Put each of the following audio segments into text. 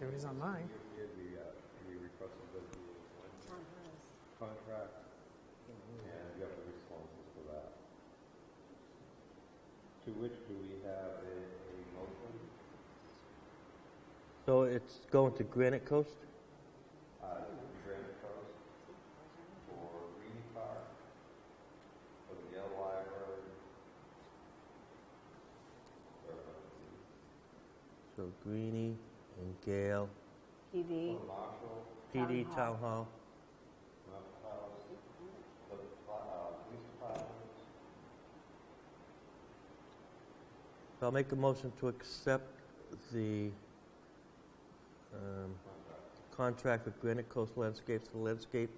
There it is online. We, we, uh, we requested that you on hers. contract, and you have the responses for that. To which do we have a, a motion? So it's going to Granite Coast? Uh, Granite Coast for Reedy Park, for the Yellow Library. Or, uh, So Greeny and Gale, PD. For Marshall, PD Town Hall. Town Hall, Mount House, the, uh, Police Department, So I'll make a motion to accept the um, contract with Granite Coast Landscapes for landscape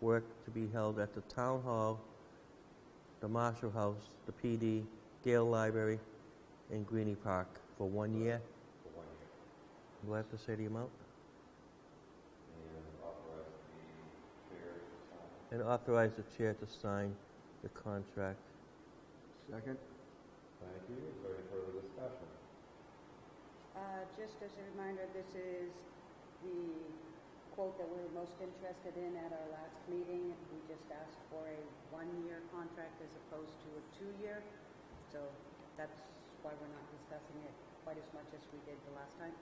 work to be held at the Town Hall, the Marshall House, the PD, Gale Library, and Greeny Park for one year. for one year. Do I have to say the amount? and authorize the chair to sign. And authorize the chair to sign the contract. Second? Thank you. Is there any further discussion? Uh, Just as a reminder, this is the quote that we were most interested in at our last meeting. We just asked for a one-year contract as opposed to a two-year. So that's why we're not discussing it quite as much as we did the last time.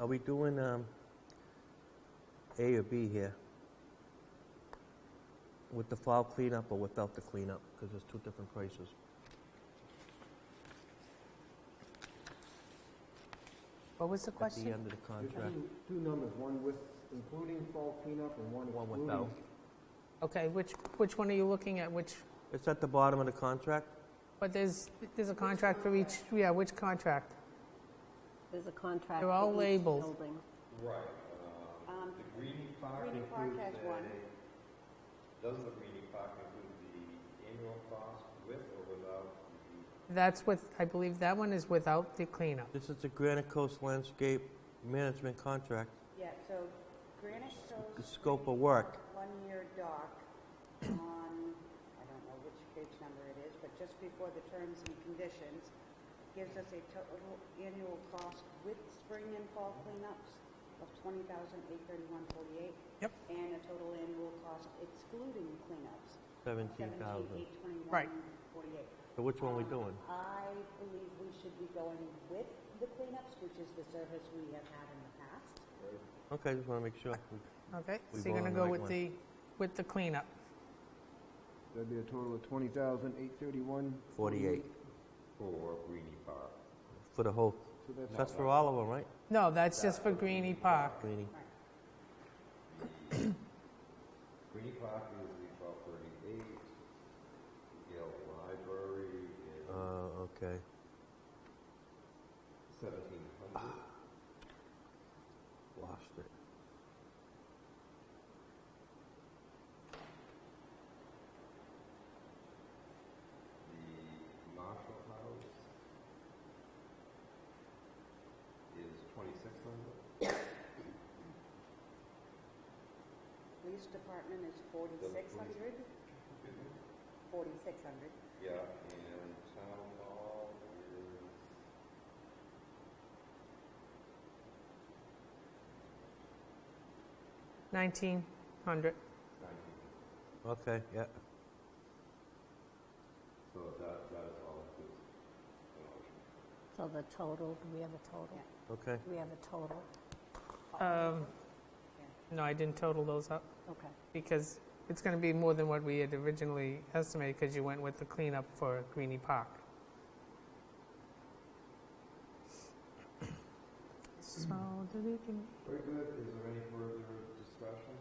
Are we doing um, A or B here? With the fall cleanup or without the cleanup? Because there's two different prices. What was the At the question? end of the There's contract. two, two numbers, one with, including fall cleanup and one One excluding. without. Okay, which, which one are you looking at? Which, It's at the bottom of the contract? but there's, there's a contract for each, yeah, which contract? There's a contract. They're all for each labeled. Right. Um, Um, the Greenie Park Greenie includes Park has one. a, does the Greenie Park include the annual cost with or without the, That's what, I believe that one is without the cleanup. This is the Granite Coast Landscape Management Contract, Yeah, so Granite the Coast scope of work. one-year doc on, I don't know which page number it is, but just before the terms and conditions, gives us a total annual cost with spring and fall cleanups of twenty thousand eight thirty-one forty-eight. Yep. And a total annual cost excluding cleanups. 17,000. Seventeen eight Right. twenty-one forty-eight. So which one we doing? I believe we should be going with the cleanups, which is the service we have had in the past. Okay, just want to make sure. Okay, We so you're gonna vote on the go right with one. the, with the cleanup. That'd be a total of twenty thousand, eight thirty-one. Forty-eight for Greenie Park? for the whole, So that's- that's for all of them, right? No, that's just for Greenie Park. Greenie. Greenie Park is the twelve thirty-eight, Yale Library Uh, is okay. seventeen hundred. Lost it. The Marshall House is twenty-six hundred. Police department is forty-six hundred? Forty-six hundred. Yeah, and town hall is. Nineteen hundred. Okay, yeah. So that, that is all inclusive. So the total, do we have a total? Okay. Do we have a total? Um, no, I didn't total those up Okay. because it's gonna be more than what we had originally estimated because you went with the cleanup for Greenie Park. So, do we can Very good, is there any further discussion?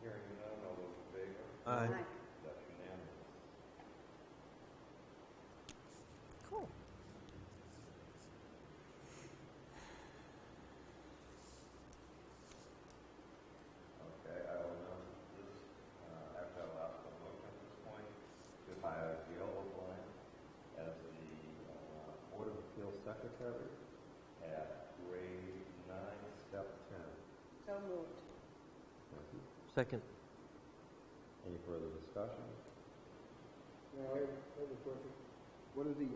Hearing none, all those in favor? Aye. That's unanimous. Cool. Okay, I will now, this, uh, after I last the motion at this point, to hire Gail O'Brien as the, uh, Board of Appeals Secretary at grade nine, step ten. So moved. Thank you. Second. Any further discussion? Now, I have I have a question. What are the